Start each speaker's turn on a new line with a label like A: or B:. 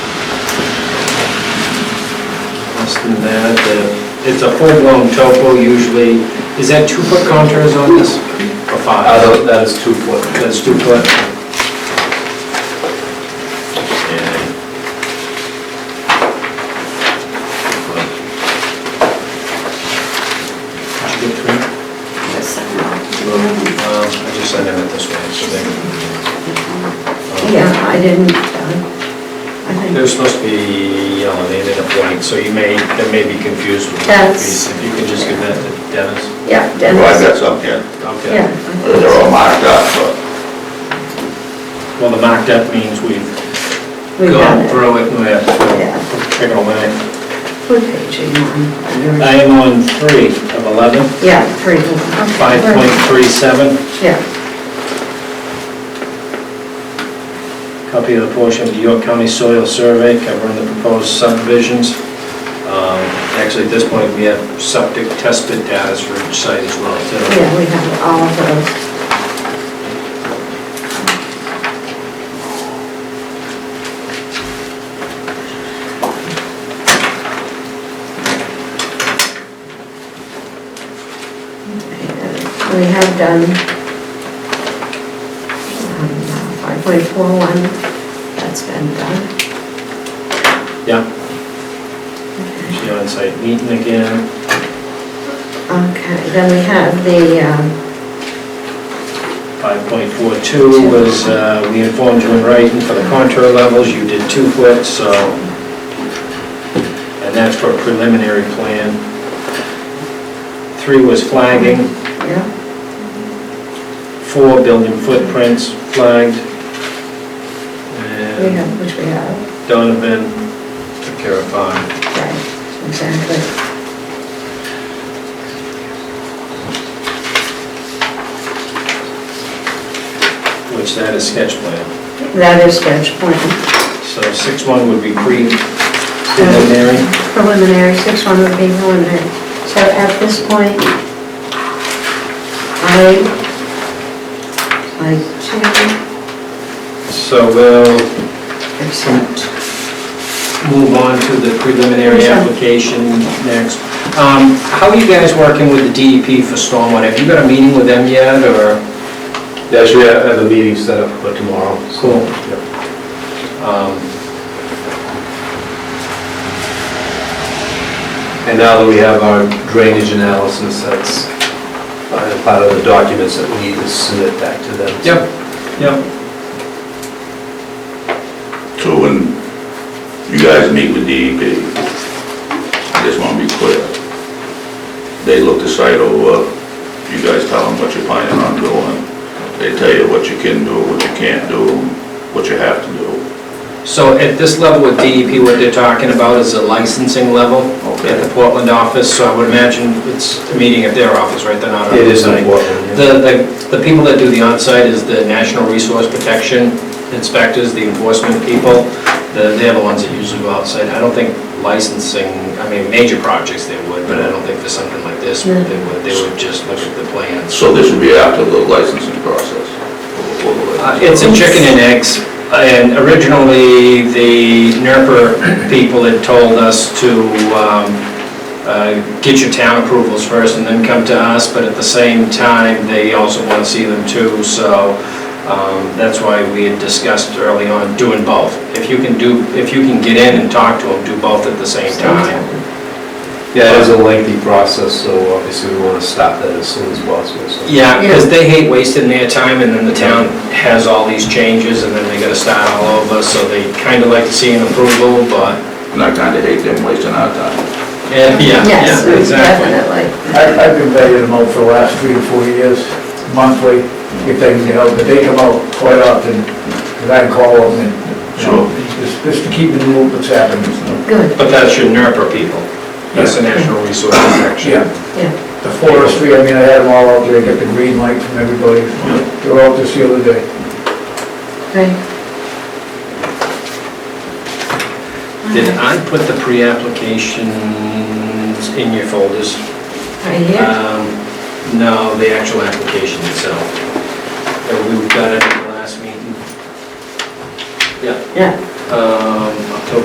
A: less than that. The- It's a full-blown topo usually. Is that two-foot contours on this? Or five?
B: Uh, that is two foot.
A: That's two-foot. Did you get three?
B: Um, I just sent him it this way, so they.
C: Yeah, I didn't, uh, I
B: They're
C: think,
B: supposed to be elevated a point, so you may, that may be confused with that
C: That's-
B: piece. If you could just give that to Dennis.
C: yeah,
D: Well, I've got
C: Dennis,
D: some here,
B: Okay.
C: yeah.
D: they're all marked up, but
B: Well, the marked up means we've
C: We
B: gone
C: got it.
B: through it and we have
C: Yeah.
B: to pick away.
C: What page are you on? Under-
B: I am on three of 11,
C: Yeah, three. okay.
B: 5.37,
C: Yeah,
B: copy of the portion of the York County Soil Survey covering the proposed subdivisions. Um, Actually, at this point, we have septic tested data for each site as well, too.
C: yeah, we have all of those. We have done um, five point four one, that's been done.
B: Yeah,
C: Okay.
B: the on-site meeting again.
C: Okay, then we have the, um,
B: 5.42 was, uh, we informed you in writing for the contour levels, you did two foot, so, and that's for preliminary plan. Three was flagging,
C: yeah,
B: four building footprints flagged.
C: we
B: And
C: have, which we have,
B: Donovan took care of five.
C: right, exactly.
B: which that is sketch plan.
C: That is sketch plan.
B: So 6.1 would be pre-preliminary.
C: Preliminary, six one would be preliminary. So at this point, I, I
B: So we'll
C: to accept.
B: move on to the preliminary
C: Sure.
B: application next. Um, How are you guys working with the DEP for stormwater? Have you got a meeting with them yet, or?
E: Yeah, actually, I have a meeting set up for tomorrow. so-
B: Cool.
E: Yeah.
B: um,
E: And now that we have our drainage analysis, that's uh, part of the documents that we need to submit back to them.
B: Yep, yep.
D: so when you guys meet with DEP, I just want to be clear. They look the site over, you guys tell them what you're planning on doing. They tell you what you can do, what you can't do, what you have to do.
B: So at this level with DEP, what they're talking about is the licensing level at the Portland office, so I would imagine it's a meeting at their office, right? They're not on
E: It is
B: site.
E: important. yeah.
B: The, the, the people that do the onsite is the National Resource Protection Inspectors, the enforcement people. The- They're the ones that usually go outside. I don't think licensing, I mean, major projects they would, but I don't think for something like this, they would, they would just look at the plans.
D: So this would be after the licensing process? before the
B: Uh,
D: licensing
B: It's a chicken and eggs, and originally, the NERPA people had told us to um, uh, get your town approvals first and then come to us, but at the same time, they also want to see them too, so um, that's why we had discussed early on doing both. If you can do, if you can get in and talk to them, do both at the same time.
E: Yeah, it is a lengthy process, so obviously we want to stop that as soon as possible. so.
B: Yeah, because they hate wasting their time, and then the town has all these changes, and then they gotta start all over, so they kind of like to see an approval, but
D: And I kind of hate them wasting our time.
B: Yeah, yeah,
C: Yes,
B: yeah, exactly.
C: definitely.
F: I- I've been paying them out for the last three to four years, monthly, if they can help, but they come out quite often, and I call them and, you
D: Sure.
F: know, just- just to keep in the loop what's happening.
C: Good,
B: But that's your NERPA people. That's the National Resource Protection.
F: Yeah,
C: yeah,
F: the forestry, I mean, I had them all out there, I got the green light from everybody, they were out this the other day.
C: right.
B: Did I put the pre-applications in your folders?
C: Right here,
B: Um, No, the actual application itself. Uh, We've got it at the last meeting. Yeah.
C: yeah,
B: Um,